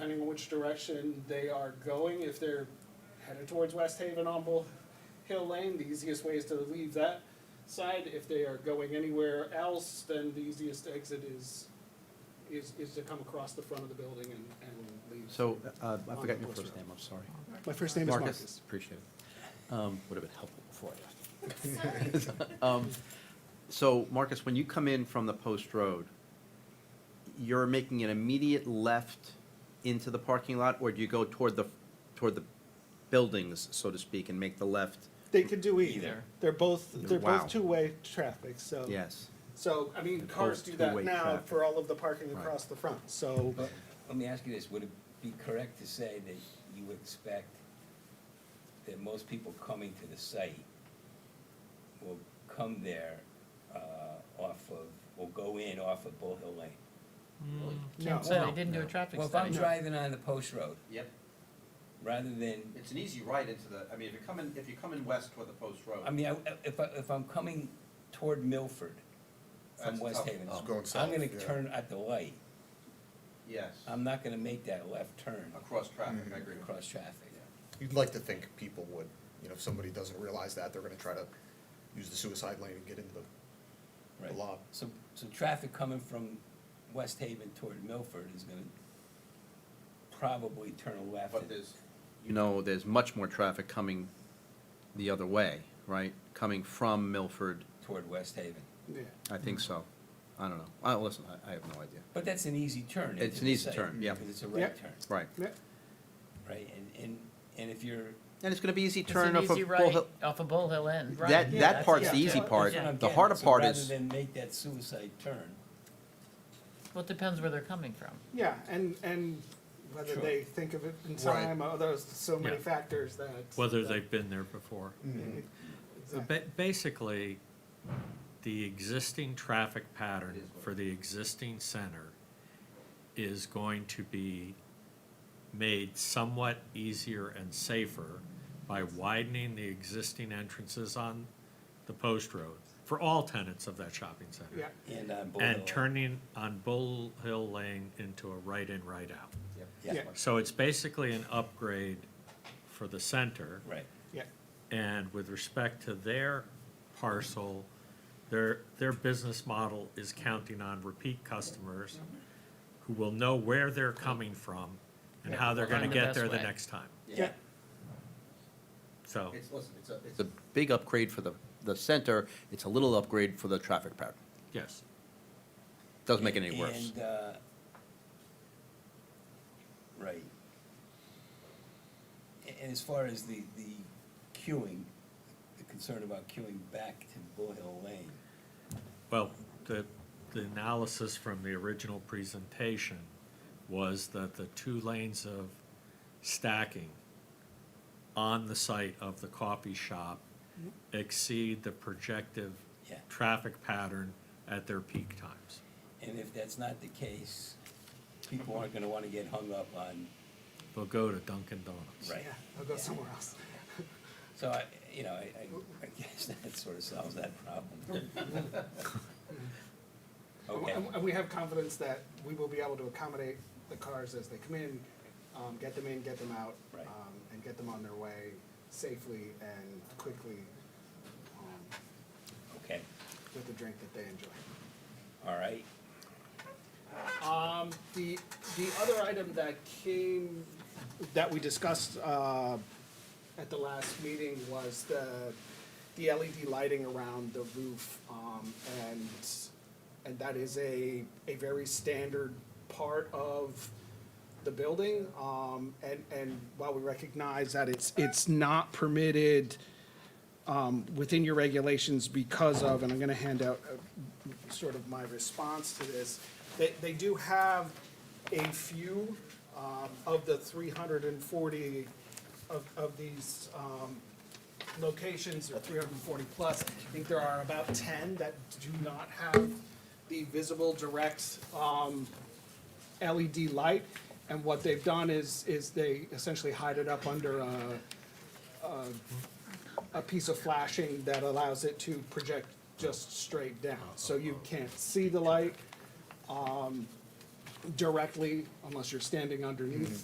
which direction they are going. If they're headed towards West Haven on Bull Hill Lane, the easiest way is to leave that side. If they are going anywhere else, then the easiest exit is, is, is to come across the front of the building and, and leave. So, uh, I forgot your first name, I'm sorry. My first name is Marcus. Appreciate it. Um, would have been helpful before I asked. Um, So, Marcus, when you come in from the post road, you're making an immediate left into the parking lot, or do you go toward the, toward the buildings, so to speak, and make the left? They could do either. Either. They're both, they're Wow. both two-way traffic, so. Yes. So, I mean, And Cars both do that two-way now traffic. for all of the parking Right. across the front, so. But let me ask you this, would it be correct to say that you expect that most people coming to the site will come there uh, off of, will go in off of Bull Hill Lane? No. Mm, Can't say No. they didn't do a traffic Well, if I'm study. driving on the post road, Yep, rather than, it's an easy ride into the, I mean, if you're coming, if you're coming west toward the post road. I mean, I- if, I- if I'm coming toward Milford from That's West tough. Haven, It's going I'm south, gonna yeah. turn at the light. yes, I'm not gonna make that left turn across traffic, I agree across traffic. You'd like to think people would, you know, if somebody doesn't realize that, they're gonna try to use the suicide lane and get into the, Right. the lot. So, so traffic coming from West Haven toward Milford is gonna probably turn left. But there's, you know, there's much more traffic coming the other way, right? Coming from Milford, Toward West Haven. Yeah. I think so. I don't know. I, listen, I, I have no idea. But that's an easy turn. It's into an the easy site, turn, yeah. Because it's a Yeah. right turn, Right. Yeah. right? And, and, and if you're, And it's gonna be easy It's turn an off of easy Bull right Hill. off of Bull Hill End, right? That, yeah, that that's- part's the yeah. easy Well, part. that's what I'm The getting harder at. So part is, Rather than make that suicide turn, Well, it depends where they're coming from. Yeah, and, and whether Sure. they think of it in Right. time, oh, there's so many Yeah. factors that. whether that- they've been there before. Mhm. So ba- Basically, the existing traffic pattern for the existing center is going to be made somewhat easier and safer by widening the existing entrances on the post road for all tenants of that shopping center. Yeah, and uh, on Bull Hill. And turning on Bull Hill Lane into a right-in, right-out. Yeah, Yeah. So it's basically an upgrade for the center. right. yeah, And with respect to their parcel, their, their business model is counting on repeat customers who will know where they're coming from and how they're gonna Find the get best there the way. next time. yeah, So, it's, listen, it's a, it's a big upgrade for the, the center. It's a little upgrade for the traffic pattern. yes, Doesn't make it any worse. And, uh, right. A- And as far as the, the queuing, the concern about queuing back to Bull Hill Lane, well, the, the analysis from the original presentation was that the two lanes of stacking on the site of the coffee shop exceed the projective Yeah. traffic pattern at their peak times. and if that's not the case, people aren't gonna wanna get hung up on, They'll go to Dunkin' Donuts. Right. yeah, I'll go somewhere else. so I, you know, I, I, I guess that sort of solves that problem. And- Okay, And and we have confidence that we will be able to accommodate the cars as they come in, um, get them in, get them out. Right. um, And get them on their way safely and quickly, um, okay, with the drink that they enjoy. all right, Um, the, the other item that came, that we discussed, uh, at the last meeting was the, the LED lighting around the roof, um, and, and that is a, a very standard part of the building, um, and, and while we recognize that it's, it's not permitted, um, within your regulations because of, and I'm gonna hand out uh, sort of my response to this. They, they do have a few, um, of the three hundred and forty of, of these, um, locations, or three hundred and forty plus. I think there are about ten that do not have the visible direct, um, LED light. And what they've done is, is they essentially hide it up under, uh, a piece of flashing that allows it to project just straight down. So you can't see the light um, directly unless you're standing underneath